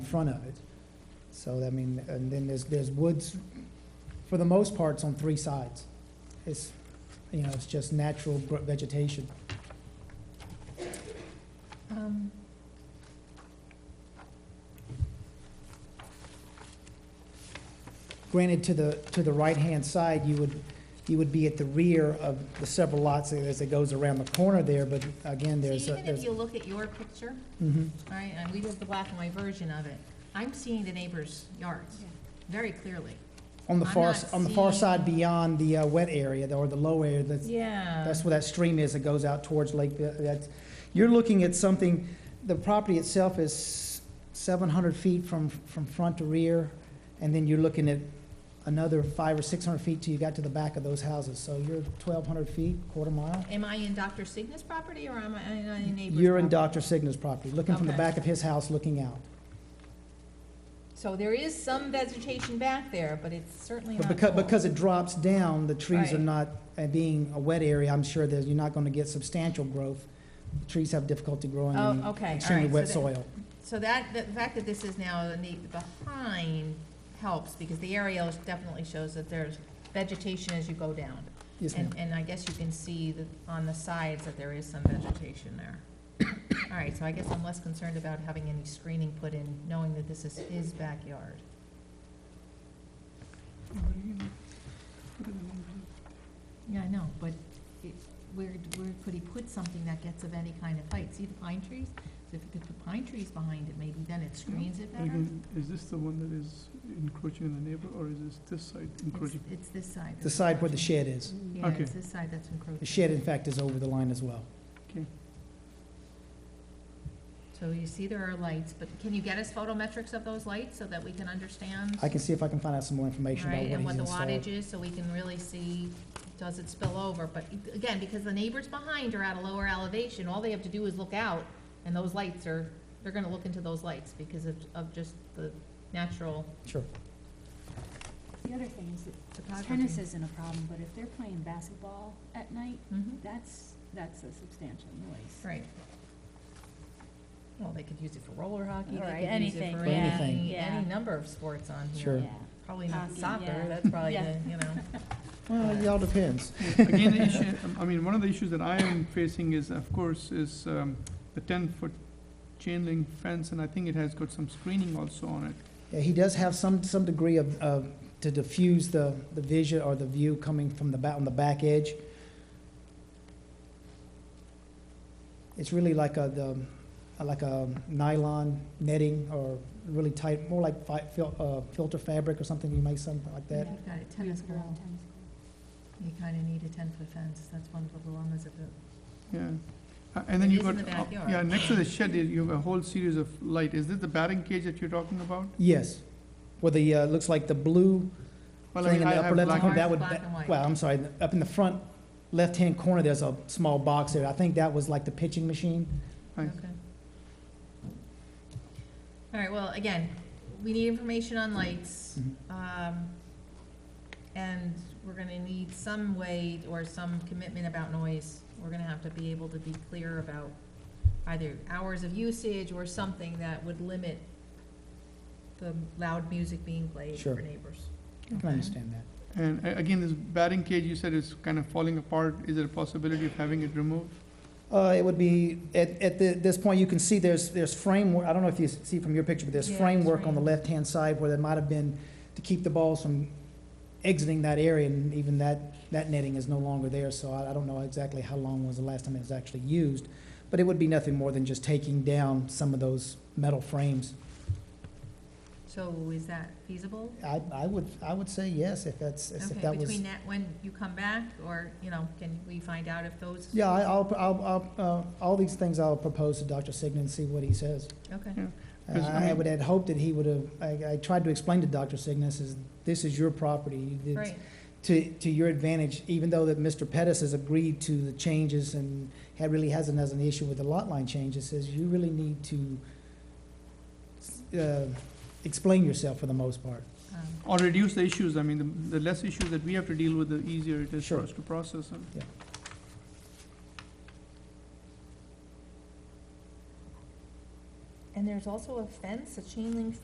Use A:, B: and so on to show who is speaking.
A: front of it. So, I mean, and then there's, there's woods, for the most part, it's on three sides. It's, you know, it's just natural gr- vegetation.
B: Um,
A: Granted, to the, to the right-hand side, you would, you would be at the rear of the several lots as it goes around the corner there, but again,
B: So
A: there's, a-
B: even if
A: there's,
B: you look at your picture,
A: Mhm.
B: all right, and we did the black and white version of it, I'm seeing the neighbor's yards very clearly.
A: on the
B: I'm
A: far,
B: not
A: s- on the far
B: seeing-
A: side beyond the uh, wet area, the- or the low area, that's,
B: Yeah.
A: That's where that stream is that goes out towards Lake, that's, you're looking at something, the property itself is seven hundred feet from, from front to rear, and then you're looking at another five or six hundred feet till you got to the back of those houses, so you're twelve hundred feet, quarter mile.
B: Am I in Dr. Signa's property or am I in a neighbor's?
A: You're in
B: property?
A: Dr. Signa's property, looking from the
B: Okay.
A: back of his house, looking out.
B: So there is some vegetation back there, but it's certainly
A: But
B: not
A: because,
B: full.
A: because it drops down, the trees are
B: Right.
A: not, uh, being a wet area, I'm sure that you're not gonna get substantial growth. Trees have difficulty growing
B: Oh,
A: in
B: okay, all
A: extremely
B: right, so
A: wet
B: that-
A: soil.
B: So that, the fact that this is now the ne- behind helps because the aerial definitely shows that there's vegetation as you go down.
A: Yes, ma'am.
B: And, and I guess you can see that on the sides that there is some vegetation there. All right, so I guess I'm less concerned about having any screening put in, knowing that this is his backyard. Yeah, I know, but it, where, where could he put something that gets of any kind of height? See the pine trees? So if you could put pine trees behind it, maybe then it
A: Mm-hmm.
B: screens it better.
C: Again, is this the one that is encroaching on the neighbor, or is this this side
B: It's,
C: encroaching?
B: it's this side.
A: The side where the
B: encroaching.
A: shed is.
B: Yeah,
C: Okay.
B: it's this side that's
A: The
B: encroaching.
A: shed, in fact, is over the line as well.
B: So you see there are lights, but can you get us photometrics of those lights so that we can understand?
A: I can see if I can find out some more information
B: Right,
A: about
B: and
A: what
B: what the
A: he's installed.
B: wattage is, so we can really see, does it spill over? But e, again, because the neighbors behind are at a lower elevation, all they have to do is look out, and those lights are, they're gonna look into those lights because of, of just the natural
A: Sure.
D: The other thing is that tennis
B: topography.
D: isn't a problem, but if they're playing basketball at night,
B: Mhm,
D: that's, that's a substantial noise.
B: Right. Well, they could use it for roller hockey,
D: Right,
B: they could use it
D: anything,
B: for
A: yeah,
B: any,
D: Anything.
B: any
D: yeah.
B: number of sports on here.
A: Sure.
D: Yeah,
B: Probably not
D: Hockey,
B: soccer,
D: yeah.
B: that's probably
D: Yeah.
B: the, you know.
A: Well, it all depends.
C: Again, the issue, um, I mean, one of the issues that I am facing is, of course, is um, the ten-foot chain link fence, and I think it has got some screening also on it.
A: Yeah, He does have some, some degree of, of, to diffuse the, the vision or the view coming from the back, on the back edge. It's really like a, the, like a nylon netting or really tight, more like fi- fil- uh, filter fabric or something, you make something like that.
D: Yeah.
B: You've got a
D: We
B: tennis
D: put around
B: ball,
D: tennis court.
B: you kinda need a ten-foot fence, that's one of the dilemmas of the
C: Yeah. Uh, And then
B: It
C: you
B: is
C: got.
B: in the
C: uh,
B: backyard.
C: Yeah, next to the shed, you you have a whole series of light. Is this the batting cage that you're talking about?
A: Yes. Well, the, uh, looks like the blue
C: Well, I
A: thing
C: mean,
A: in
C: I
A: the
C: have
A: upper left
C: black
A: corner,
C: and-
A: that would,
B: Black and white.
A: well, I'm sorry, up in the front left-hand corner, there's a small box there. I think that was like the pitching machine.
C: Right.
B: Okay. All right, well, again, we need information on lights. um, And we're gonna need some way or some commitment about noise. We're gonna have to be able to be clear about either hours of usage or something that would limit the loud music being played
A: Sure.
B: for neighbors.
A: I can understand that.
C: And a- again, this batting cage, you said is kind of falling apart. Is there a possibility of having it removed?
A: Uh, it would be, at, at the- this point, you can see there's, there's framework, I don't know if you see from your picture, but there's
B: Yeah, it's
A: framework on the
B: frame.
A: left-hand side where there might have been to keep the balls from exiting that area, and even that, that netting is no longer there, so I, I don't know exactly how long was the last time it was actually used. But it would be nothing more than just taking down some of those metal frames.
B: So is that feasible?
A: I, I would, I would say yes, if that's, if
B: Okay,
A: that was.
B: between that, when you come back, or, you know, can we find out if those?
A: Yeah, I- I'll, I'll, I'll, uh, all these things I'll propose to Dr. Signa and see what he says.
B: Okay.
A: Uh,
C: 'Cause, I
A: I
C: mean-
A: would had hoped that he would have, I, I tried to explain to Dr. Signa, is, this is your property. It's
B: Right,
A: To, to your advantage, even though that Mr. Pettis has agreed to the changes and had, really hasn't has an issue with the lot line changes, says you really need to, uh, explain yourself for the most part.
B: um,
C: Or reduce the issues, I mean, the, the less issues that we have to deal with, the easier it is
A: Sure.
C: for us to process them.
B: And there's also a fence, a chain link